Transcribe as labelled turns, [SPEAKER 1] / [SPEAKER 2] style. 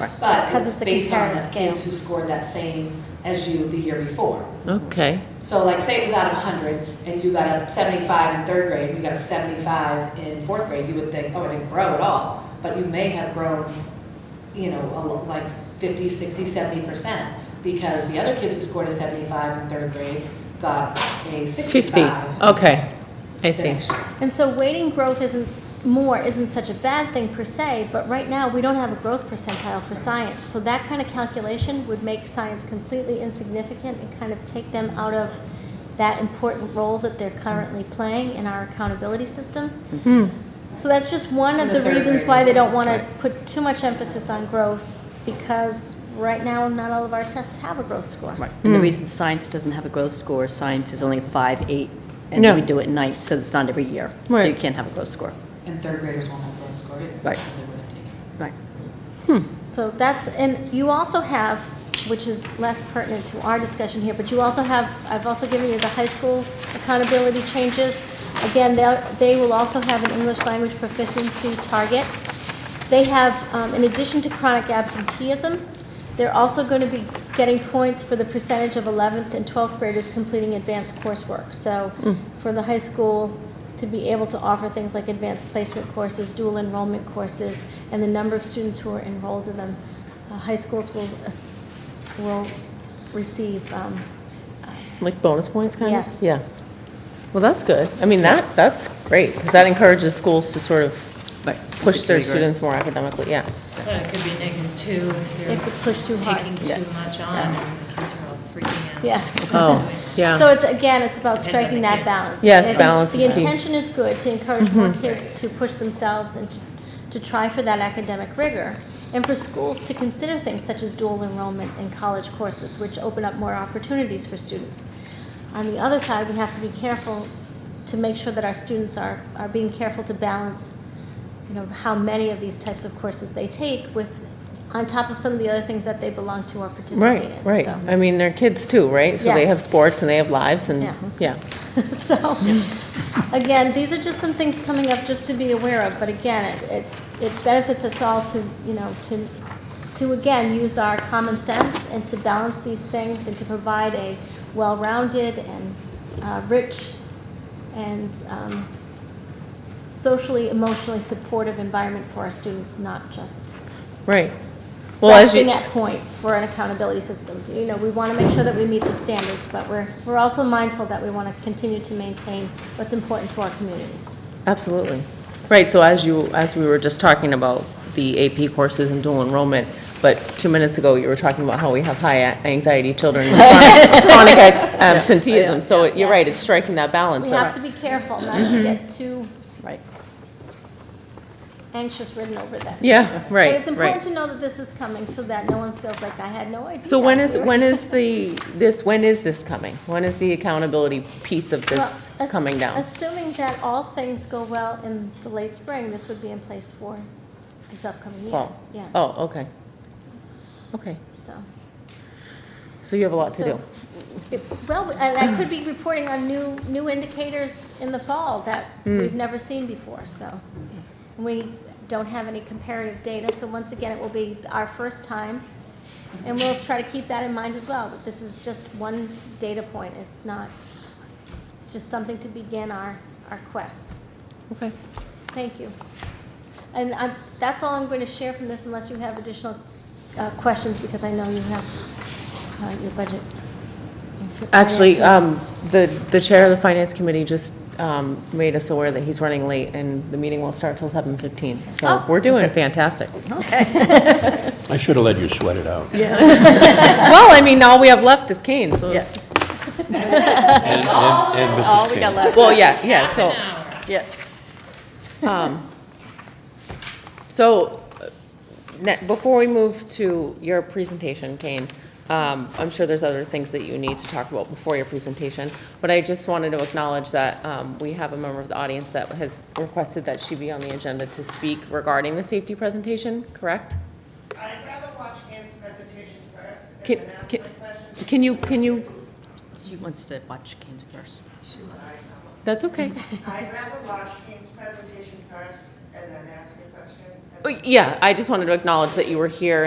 [SPEAKER 1] Right.
[SPEAKER 2] But
[SPEAKER 1] Because
[SPEAKER 2] it's
[SPEAKER 1] it's a
[SPEAKER 2] based on
[SPEAKER 1] comparative
[SPEAKER 2] the
[SPEAKER 1] scale.
[SPEAKER 2] kids who scored that same as you the year before.
[SPEAKER 3] Okay,
[SPEAKER 2] So like, say it was out of hundred, and you got a seventy-five in third grade, and you got a seventy-five in fourth grade, you would think, oh, I didn't grow at all, but you may have grown, you know, a lo- like 50, 60, 70 percent, because the other kids who scored a seventy-five in third grade got
[SPEAKER 3] 50,
[SPEAKER 2] a sixty-five.
[SPEAKER 3] okay, I
[SPEAKER 2] the
[SPEAKER 3] see.
[SPEAKER 2] next year.
[SPEAKER 1] And so waiting growth isn't, more isn't such a bad thing per se, but right now, we don't have a growth percentile for science. So that kind of calculation would make science completely insignificant and kind of take them out of that important role that they're currently playing in our accountability system.
[SPEAKER 4] Hmm.
[SPEAKER 1] So that's just one of
[SPEAKER 2] And
[SPEAKER 1] the
[SPEAKER 2] the third
[SPEAKER 1] reasons
[SPEAKER 2] graders.
[SPEAKER 1] why they don't want to put too much emphasis on growth, because right now, not all of our tests have a growth score.
[SPEAKER 5] Right,
[SPEAKER 4] Hmm.
[SPEAKER 5] and the reason science doesn't have a growth score, science is only five, eight, and
[SPEAKER 4] No.
[SPEAKER 5] we do it in ninth, so it's not every year. So you
[SPEAKER 4] Right.
[SPEAKER 5] can't have a growth score.
[SPEAKER 2] And third graders won't have those score either,
[SPEAKER 5] Right.
[SPEAKER 2] because they would have taken. it.
[SPEAKER 5] Right.
[SPEAKER 1] So that's, and you also have, which is less pertinent to our discussion here, but you also have, I've also given you the high school accountability changes. Again, they'll- they will also have an English language proficiency target. They have, um, in addition to chronic absenteeism, they're also going to be getting points for the percentage of 11th and 12th graders completing advanced coursework. So for the high school to be able to offer things like advanced placement courses, dual enrollment courses, and the number of students who are enrolled in them, uh, high schools will, as- will receive, um,
[SPEAKER 4] Like bonus points, kind of?
[SPEAKER 1] Yes.
[SPEAKER 4] Yeah. Well, that's good. I mean, that, that's great, because that encourages schools to sort of
[SPEAKER 5] Right.
[SPEAKER 4] push their students more academically, yeah.
[SPEAKER 6] But it could be negative two if
[SPEAKER 1] It could push too
[SPEAKER 6] they're
[SPEAKER 1] hard.
[SPEAKER 6] taking too much on and the kids are all freaking out.
[SPEAKER 1] yes.
[SPEAKER 4] Oh, yeah.
[SPEAKER 1] So it's, again, it's about
[SPEAKER 6] Depends on
[SPEAKER 1] striking
[SPEAKER 6] the
[SPEAKER 1] that
[SPEAKER 6] kid.
[SPEAKER 1] balance.
[SPEAKER 4] Yes,
[SPEAKER 1] And
[SPEAKER 4] balance
[SPEAKER 1] The
[SPEAKER 4] is key. Mm-hmm.
[SPEAKER 1] intention is good, to encourage more kids to push themselves and to, to try for that academic rigor. And for schools to consider things such as dual enrollment in college courses, which open up more opportunities for students. On the other side, we have to be careful to make sure that our students are, are being careful to balance, you know, how many of these types of courses they take with, on top of some of the other things that they belong to or participate in.
[SPEAKER 4] Right, right.
[SPEAKER 1] So-
[SPEAKER 4] I mean, they're kids too, right? So they
[SPEAKER 1] Yes.
[SPEAKER 4] have sports and they have lives and,
[SPEAKER 1] Yeah.
[SPEAKER 4] yeah.
[SPEAKER 1] So, again, these are just some things coming up just to be aware of, but again, it, it it benefits us all to, you know, to, to again, use our common sense and to balance these things and to provide a well-rounded and uh, rich and um, socially, emotionally supportive environment for our students, not just
[SPEAKER 4] Right. Well, as
[SPEAKER 1] resting
[SPEAKER 4] you,
[SPEAKER 1] at points for an accountability system. You know, we want to make sure that we meet the standards, but we're, we're also mindful that we want to continue to maintain what's important to our communities.
[SPEAKER 4] absolutely. Right, so as you, as we were just talking about the AP courses and dual enrollment, but two minutes ago, you were talking about how we have high a- anxiety children, with chronic abs- absenteeism. So it- you're right, it's striking that balance.
[SPEAKER 1] We
[SPEAKER 4] of-
[SPEAKER 1] have to be careful not to get too
[SPEAKER 5] Right. anxious
[SPEAKER 1] ridden over this.
[SPEAKER 4] Yeah, right,
[SPEAKER 1] But it's
[SPEAKER 4] right.
[SPEAKER 1] important to know that this is coming so that no one feels like I had no idea.
[SPEAKER 4] So when is,
[SPEAKER 1] We were-
[SPEAKER 4] when is the, this, when is this coming? When is the accountability piece of this
[SPEAKER 1] Well, ass-
[SPEAKER 4] coming down?
[SPEAKER 1] Assuming that all things go well in the late spring, this would be in place for this upcoming year.
[SPEAKER 4] Fall?
[SPEAKER 1] Yeah.
[SPEAKER 4] Oh, okay. Okay,
[SPEAKER 1] So.
[SPEAKER 4] so you have a lot to
[SPEAKER 1] So-
[SPEAKER 4] do.
[SPEAKER 1] it- Well, and I could be reporting on new, new indicators in the fall that
[SPEAKER 4] Hmm.
[SPEAKER 1] we've never seen before, so. We don't have any comparative data, so once again, it will be our first time. And we'll try to keep that in mind as well, that this is just one data point, it's not, it's just something to begin our, our quest.
[SPEAKER 4] Okay.
[SPEAKER 1] Thank you. And I, that's all I'm going to share from this unless you have additional uh, questions, because I know you have uh, your budget. your fi-
[SPEAKER 4] Actually,
[SPEAKER 1] finance.
[SPEAKER 4] um, the, the chair of the finance committee just, um, made us aware that he's running late and the meeting won't start till seven fifteen. So
[SPEAKER 1] Oh.
[SPEAKER 4] we're doing fantastic.
[SPEAKER 7] I should have let you sweat it out.
[SPEAKER 4] Well, I mean, all we have left is Kane, so. it's-
[SPEAKER 7] And, and and
[SPEAKER 5] All
[SPEAKER 7] Mrs.
[SPEAKER 5] Oh, we got
[SPEAKER 7] King.
[SPEAKER 5] left,
[SPEAKER 4] Well, yeah, yeah, so.
[SPEAKER 5] yeah.
[SPEAKER 4] So, uh, ne- before we move to your presentation, Kane, um, I'm sure there's other things that you need to talk about before your presentation, but I just wanted to acknowledge that um, we have a member of the audience that has requested that she be on the agenda to speak regarding the safety presentation, correct?
[SPEAKER 8] I'd rather watch Ann's presentation first
[SPEAKER 4] Can-
[SPEAKER 8] and then ask
[SPEAKER 4] can-
[SPEAKER 8] my questions.
[SPEAKER 4] Can you, can you,
[SPEAKER 5] She wants to watch Kane's first.
[SPEAKER 4] that's okay.
[SPEAKER 8] I'd rather watch Ann's presentation first and then ask a question. and
[SPEAKER 4] Oh, Uh, Yeah, I just wanted to acknowledge that you were here